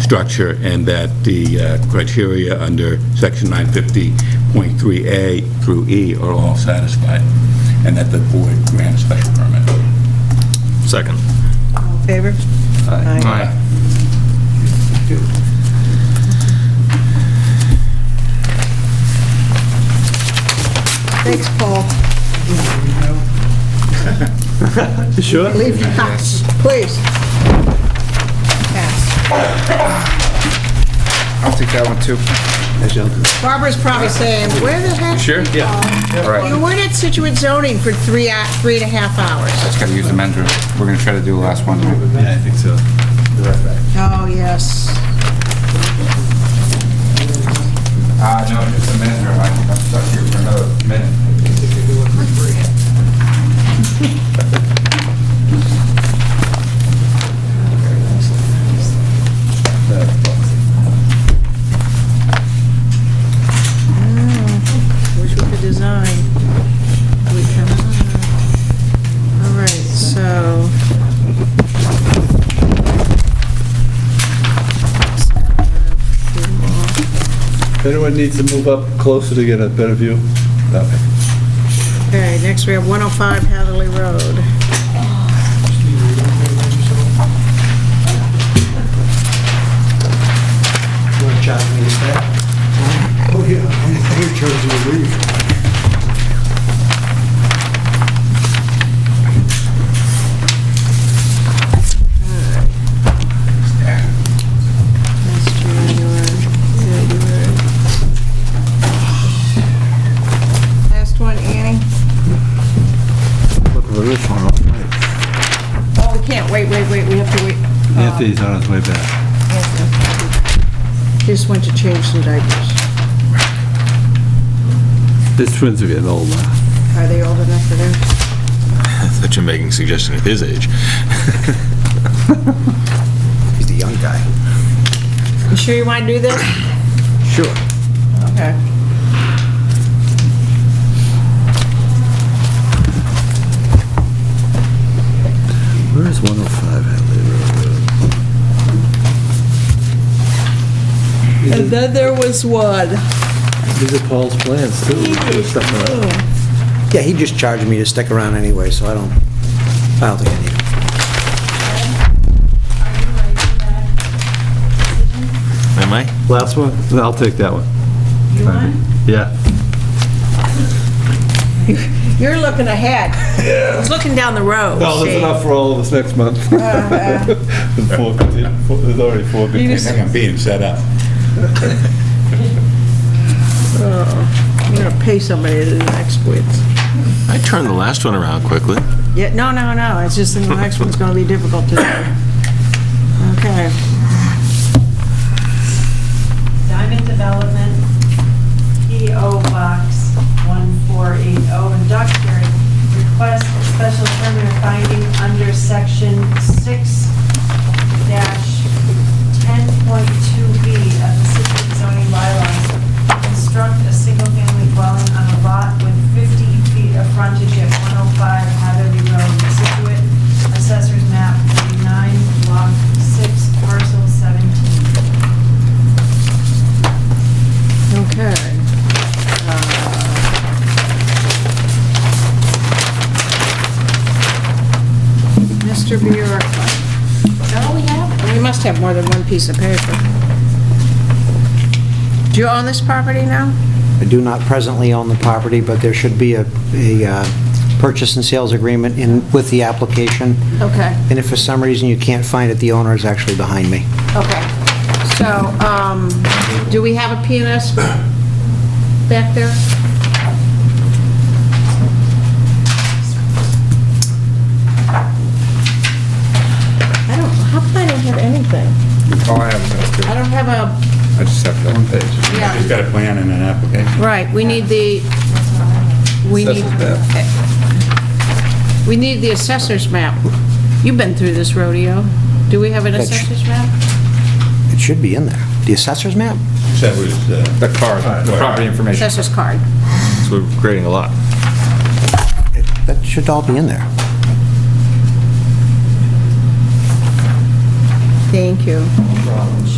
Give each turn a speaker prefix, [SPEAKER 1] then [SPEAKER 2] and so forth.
[SPEAKER 1] structure, and that the uh, criteria under Section 950.3A through E are all satisfied, and that the board grants special permit.
[SPEAKER 2] Second.
[SPEAKER 3] All in favor? Aye. Thanks, Paul.
[SPEAKER 2] You sure?
[SPEAKER 3] Leave the house, please. Pass.
[SPEAKER 4] I'll take that one too.
[SPEAKER 3] Barbara's probably saying, where the heck?
[SPEAKER 1] Sure?
[SPEAKER 3] Yeah.
[SPEAKER 4] All right,
[SPEAKER 3] You weren't at Situate zoning for three, hou- three and a half hours.
[SPEAKER 4] just gotta use the mender. We're gonna try to do the last one. right?
[SPEAKER 2] Yeah, I think so.
[SPEAKER 3] Oh, yes.
[SPEAKER 4] Uh, no, just a mender. I think I'm stuck here for another minute.
[SPEAKER 3] Oh, Wish we could design. We can- All right, so.
[SPEAKER 5] If anyone needs to move up closer to get a better view, nothing.
[SPEAKER 3] Okay, next we have 105 Hatherley Road.
[SPEAKER 6] You want to chat to me instead? Oh, yeah, I chose to leave.
[SPEAKER 3] That's true, you are. Yeah, you are. Last one, Annie.
[SPEAKER 5] Look at this one,
[SPEAKER 3] Oh, we can't, wait, wait, wait, we have to wait. Uh,
[SPEAKER 5] Anthony's on his way back.
[SPEAKER 3] Just went to change some diapers.
[SPEAKER 5] This twins are getting old now.
[SPEAKER 3] Are they old enough for that?
[SPEAKER 2] I thought you were making a suggestion at his age.
[SPEAKER 4] He's the young guy.
[SPEAKER 3] You sure you want to do this?
[SPEAKER 4] Sure.
[SPEAKER 3] Okay.
[SPEAKER 5] Where is 105 Hadley Road?
[SPEAKER 3] And then there was one.
[SPEAKER 5] These are Paul's plans, too. Stuff like that.
[SPEAKER 6] Yeah, he just charged me to stick around anyway, so I don't, I don't think I need it.
[SPEAKER 2] Am I?
[SPEAKER 5] Last one? I'll take that one.
[SPEAKER 3] You want?
[SPEAKER 5] Yeah.
[SPEAKER 3] You're looking ahead. Yeah. I was looking down the road.
[SPEAKER 5] Well,
[SPEAKER 3] see?
[SPEAKER 5] there's enough for all of us next month.
[SPEAKER 3] Uh,
[SPEAKER 5] There's four contin- four- there's already four
[SPEAKER 3] You
[SPEAKER 5] continues.
[SPEAKER 3] just-
[SPEAKER 1] I'm being set up.
[SPEAKER 3] I'm gonna pay somebody to do the next quiz.
[SPEAKER 2] I turned the last one around quickly.
[SPEAKER 3] Yeah, no, no, no, it's just the next one's gonna be difficult to do. Okay.
[SPEAKER 7] Diamond Development, PO Box 1480 in Duxbury, oh, request a special permit of finding under section 6-10.2B of the Situate zoning bylaws, construct a single-family dwelling on a lot with 50 feet of frontage at 105 Hatherley Road, Situate, Assessor's Map 49, Block 6, Parcel 17.
[SPEAKER 3] Okay. Uh, Mr. Bjork. No, we have. We must have more than one piece of paper. Do you own this property now?
[SPEAKER 6] I do not presently own the property, but there should be a, a uh, purchase and sales agreement in, with the application.
[SPEAKER 3] Okay,
[SPEAKER 6] And if for some reason you can't find it, the owner is actually behind me.
[SPEAKER 3] okay. So, um, do we have a PNS back there? I don't, how come I don't have anything?
[SPEAKER 4] All Oh, I have is that
[SPEAKER 3] I
[SPEAKER 4] too.
[SPEAKER 3] don't have a,
[SPEAKER 4] I just have that one page.
[SPEAKER 1] He's
[SPEAKER 3] yeah,
[SPEAKER 1] got a plan and an application.
[SPEAKER 3] right, we need the, we need, we need the assessor's map. You've been through this rodeo. Do we have an
[SPEAKER 6] That's-
[SPEAKER 3] assessor's map?
[SPEAKER 6] It should be in there. The assessor's map?
[SPEAKER 1] That was, uh,
[SPEAKER 4] The card, the property information.
[SPEAKER 3] Assessor's card.
[SPEAKER 2] So we're grading a lot.
[SPEAKER 6] That should all be in there.
[SPEAKER 3] Thank you.